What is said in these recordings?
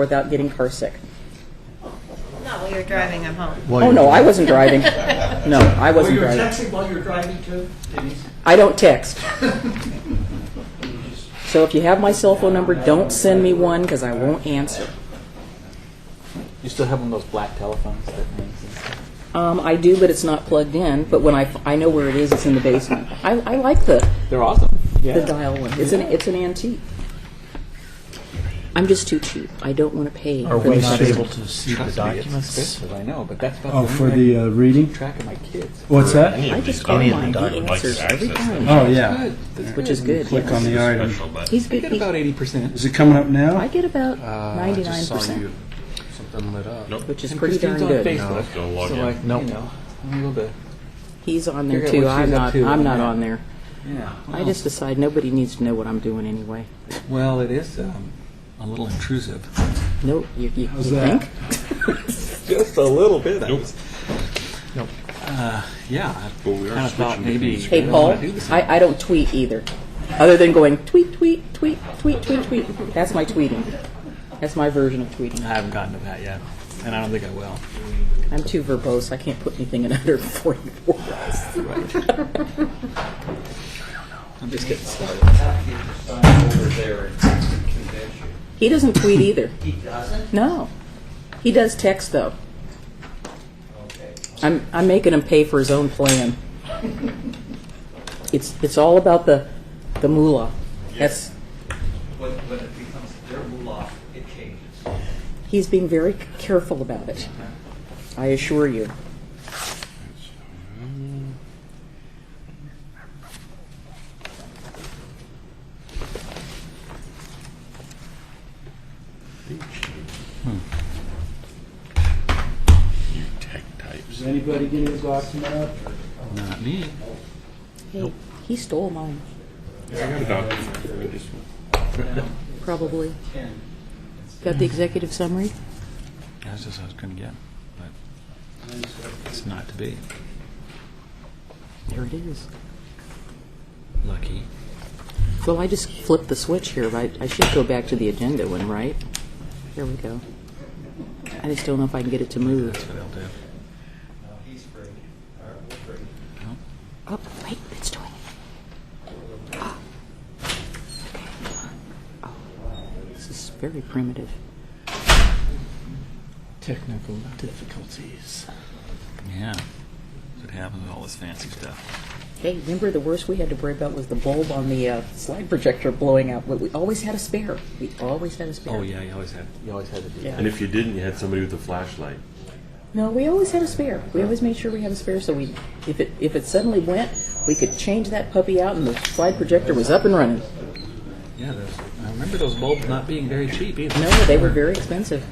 without getting car sick. No, while you're driving, I'm home. While Oh, you're no, driving. I wasn't driving. No, I Were wasn't you driving. texting while you were driving too, Denise? I don't text. So if you have my cell phone number, don't send me one because I won't answer. You still have one of those black telephones that hangs and stuff? Um, I do, but it's not plugged in. But when I, f- I know where it is, it's in the basement. I, I like the, They're awesome. Yeah. the dial one. It's an, it's an antique. I'm just too cheap. I don't want to pay. Are for we the not modern- able to see the Trust me, it's documents? expensive, I know, but that's about Oh, the for only the way I uh, reading? keep track of my kids. What's that? I Any just of go the, on any of my the Google documents answers every time, Oh, yeah. Good. That's which is good. Click yes. on the item. special button. He's I good. get he- about eighty percent. Is it coming up now? I get about I just ninety-nine saw you. percent, Something lit up. which is And pretty darn Christine's on good. Facebook, Don't log so in. like, you know, I'm able to. He's on there Figure out too. what she's Oh. I'm not. up to. I'm not Yeah. on there. Yeah. I just decide nobody needs to know what I'm doing anyway. Well, it is um, a little intrusive. Nope. You, you, How's you that? think? Just a little bit. I Nope. was- Uh, yeah. I But we are kinda thought switching maybe. between Hey I don't Paul, wanna do this I, I don't tweet either, other than going tweet tweet tweet tweet tweet tweet. That's my tweeting. That's my version of tweeting. I haven't gotten to that yet, and I don't think I will. I'm too verbose. I can't put anything in under 44 hours. I'm just getting started. Over there in convention. He doesn't tweet either. He doesn't? No, he does text though. Okay. I'm, I'm making him pay for his own plan. It's, it's all about the, the moolah. That's, When, when it becomes their moolah, it changes. he's being very careful about it. I assure you. You tech types. Is anybody getting a document up? Not me. Hey, he stole mine, I got a document for this one. probably. Got the executive summary? That's just what I was going to get, but it's not to be. There it is. Lucky. Well, I just flipped the switch here, but I should go back to the agenda one, right? There we go. I just don't know if I can get it to move. That's what I'll do. No, he's free. All right, we're free. Oh, wait, it's doing Ah. it. Oh. Okay. Oh. This is very primitive. Technical difficulties. Yeah. That's what happens with all this fancy stuff. Hey, remember the worst we had to worry about was the bulb on the uh, slide projector blowing out. But we always had a spare. We always had a spare. Oh yeah, you always had you always had to do Yeah. And if you didn't, you had somebody with a flashlight. No, we always had a spare. We always made sure we had a spare, so we, if it if it suddenly went, we could change that puppy out, and the slide projector was up and running. that. Yeah, those, I remember those bulbs not being very cheap either. No, they were very expensive.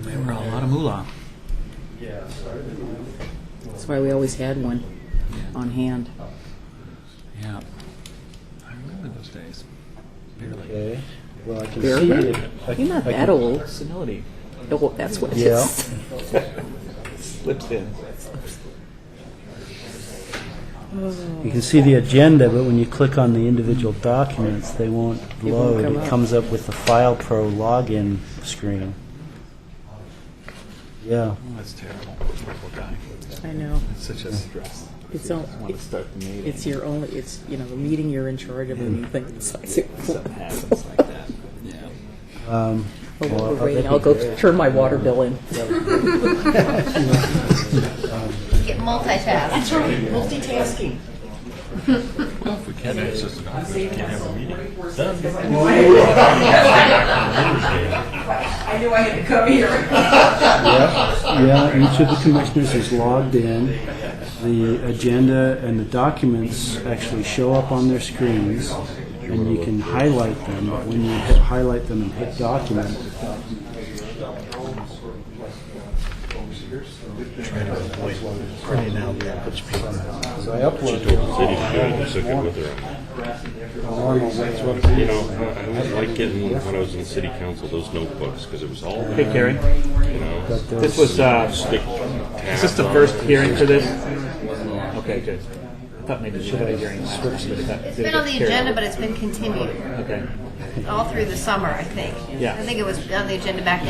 They were a lot of moolah. That's why we always had one on hand. Yeah. I remember those days. Barely. Okay. Well, I can There. see it. I- You're not I that can- old. Senility Oh, that's what it Yeah. is. slips in. You can see the agenda, but when you click on the individual documents, they won't won't load. come It up. comes up with the File Pro login screen. Yeah. Oh, that's terrible. Terrible guy. I know. It's such a stress. It's all. I want to start the meeting. It's your only. It's you know the meeting you're in charge of, and you think it's like, Something happens like that. Yeah. Um, oh, Well, we're I waiting. think I'll go we- turn my water bill in. Get multitask. Multitasking. Well, if we can't access the document, we can't have a meeting. Yeah, each of the commissioners is logged in. The agenda and the documents actually show up on their screens, and you can highlight them. But when you hit highlight them and hit document, Printing out the average paper. so I upload Said he should, just took it with her. You know, I I always liked getting, when I was in city council, those notebooks, because it was all, Hey, you Gary. know, This was, uh, stick. is this the first hearing for this? Okay, good. I thought maybe you had a hearing last time, but that It's been on the agenda, but it's been continued. Okay. all through the summer, I think. Yeah. I think it was on the agenda back